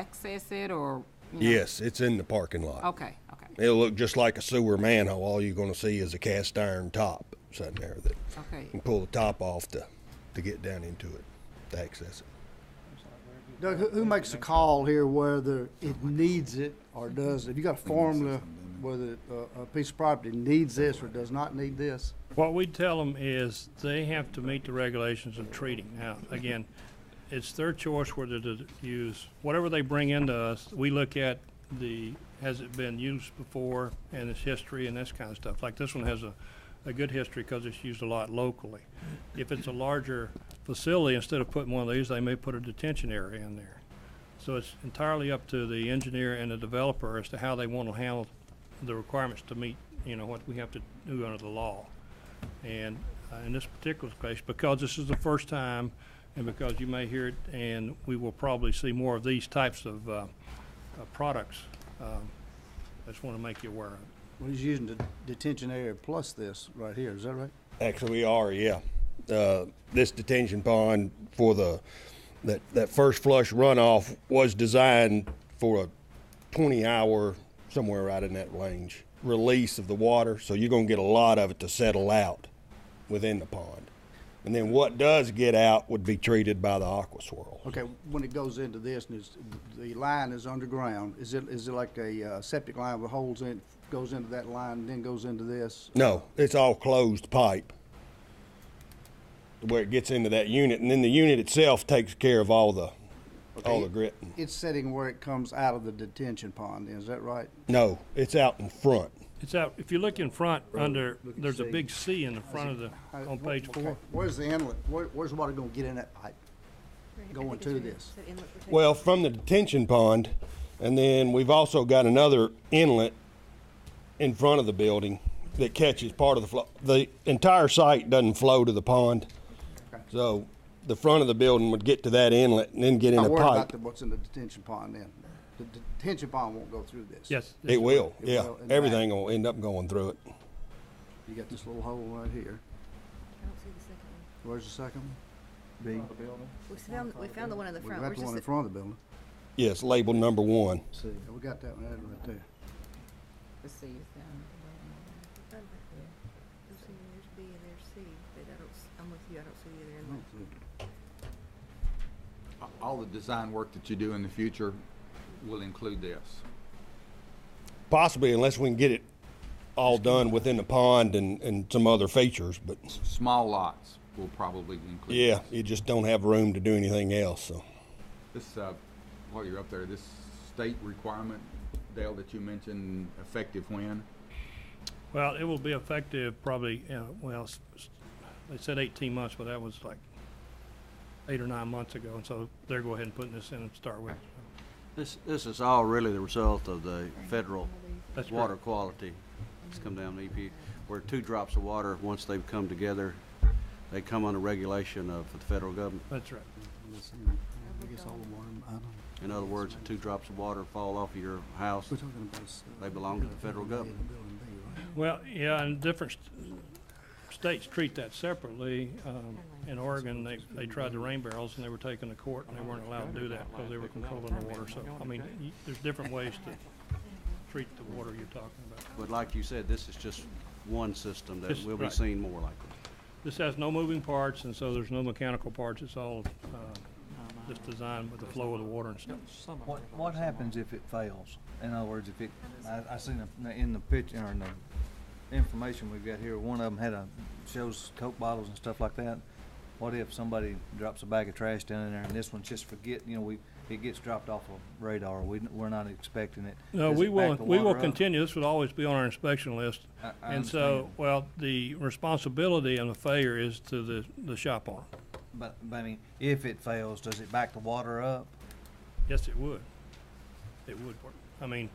access it or? you know? Yes, it's in the parking lot. Okay, okay, It'll look just like a sewer manhole. All you're going to see is a cast iron top sitting there that you okay. can pull the top off to, to get down into it, to access it. Doug, who, who makes the call here whether it needs it or does it? You got a formula whether uh, a piece of property needs this or does not need this? What we tell them is they have to meet the regulations of treating. Now, again, it's their choice whether to use, whatever they bring into us, we look at the, has it been used before and its history and this kind of stuff. Like this one has a, a good history because it's used a lot locally. If it's a larger facility, instead of putting one of these, they may put a detention area in there. So it's entirely up to the engineer and the developer as to how they want to handle the requirements to meet, you know, what we have to do under the law. And uh, in this particular case, because this is the first time, and because you may hear it, and we will probably see more of these types of uh, uh, products, um, I just want to make you aware of it. Well, he's using the detention area plus this right here, is that right? Actually, we are, yeah. Uh, this detention pond for the, that, that first flush runoff was designed for a 20 hour, somewhere right in that range, release of the water. So you're going to get a lot of it to settle out within the pond. And then what does get out would be treated by the aqua swirl. Okay, when it goes into this and it's, the line is underground, is it, is it like a uh, septic line with holes in, it, goes into that line, then goes into this? No, it's all closed pipe where it gets into that unit, and then the unit itself takes care of all the all the grit. It's sitting where it comes out of the detention pond, is that right? No, it's out in front. It's out, if you look in front, under, look at there's a C. big C in the front of the, Uh, on wh- page okay. four. Where's the inlet? Where, where's the water gonna get in that pipe? Going to this. Well, from the detention pond, and then we've also got another inlet in front of the building that catches part of the flow. The entire site doesn't flow to the pond, so the front of the building would get to that inlet and then get in I a worry about pipe. the- what's in the detention pond then. The detention pond won't go through this. Yes. It will, It yeah. will in the back. Everything will end up going through it. You got this little hole right here. Where's the second one? We found, we found the one in the We front. got We're the one in just, front of the building. Yes, label number one. Yeah, we got that one added right there. The C is down. there's B and there's C, but I don't, s- I'm with you, I don't see either in there. All the design work that you do in the future will include this. Possibly, unless we can get it all done within the pond and, and some other features, but Small lots will probably include. yeah, this. you just don't have room to do anything else, so. This, uh, while you're up there, this state requirement, Dale, that you mentioned, effective when? Well, it will be effective probably, uh, well, s- s- they said eighteen months, but that was like eight or nine months ago, and so they're go ahead and putting this in and start with. This, this is all really the result of the federal That's water correct. quality. It's come down to EP, where two drops of water, once they've come together, they come under regulation of the federal government. That's right. I guess all the water, I don't, In other words, if two drops of water fall off of your house, we're talking about. s- They belong to the federal government. Building B, right? Well, yeah, and different st- states treat that separately. Um, In Oregon, they, they tried the rain barrels and they were taken to court and they weren't allowed to do that because they were controlling the water. So, I mean, y- there's different ways to treat the water you're talking about. but like you said, this is just one system that This- will be right. seen more likely. This has no moving parts and so there's no mechanical parts. It's all, uh, just designed with the flow of the water and stuff. What, what happens if it fails? In other words, if it, I, I seen a- in the picture, or in the information we've got here, one of them had a, shows Coke bottles and stuff like that. What if somebody drops a bag of trash down in there and this one just forget, you know, we, it gets dropped off of radar, we, we're not expecting it. No, Does we it back will, the we will water up? continue. This would always be on our inspection list. I- I And so, understand. well, the responsibility and the failure is to the, the shop owner. But, but I mean, if it fails, does it back the water up? Yes, it would. It would work. I mean,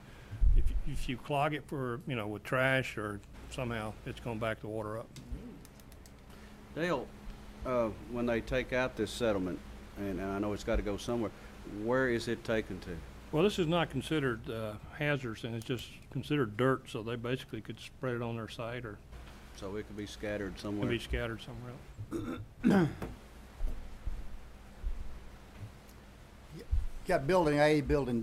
if, y- if you clog it for, you know, with trash or somehow, it's gonna back the water up. Dale, uh, when they take out this settlement, and and I know it's gotta go somewhere, where is it taken to? Well, this is not considered, uh, hazardous and it's just considered dirt, so they basically could spread it on their site or So it could be scattered it somewhere. could be scattered somewhere else. got building A, building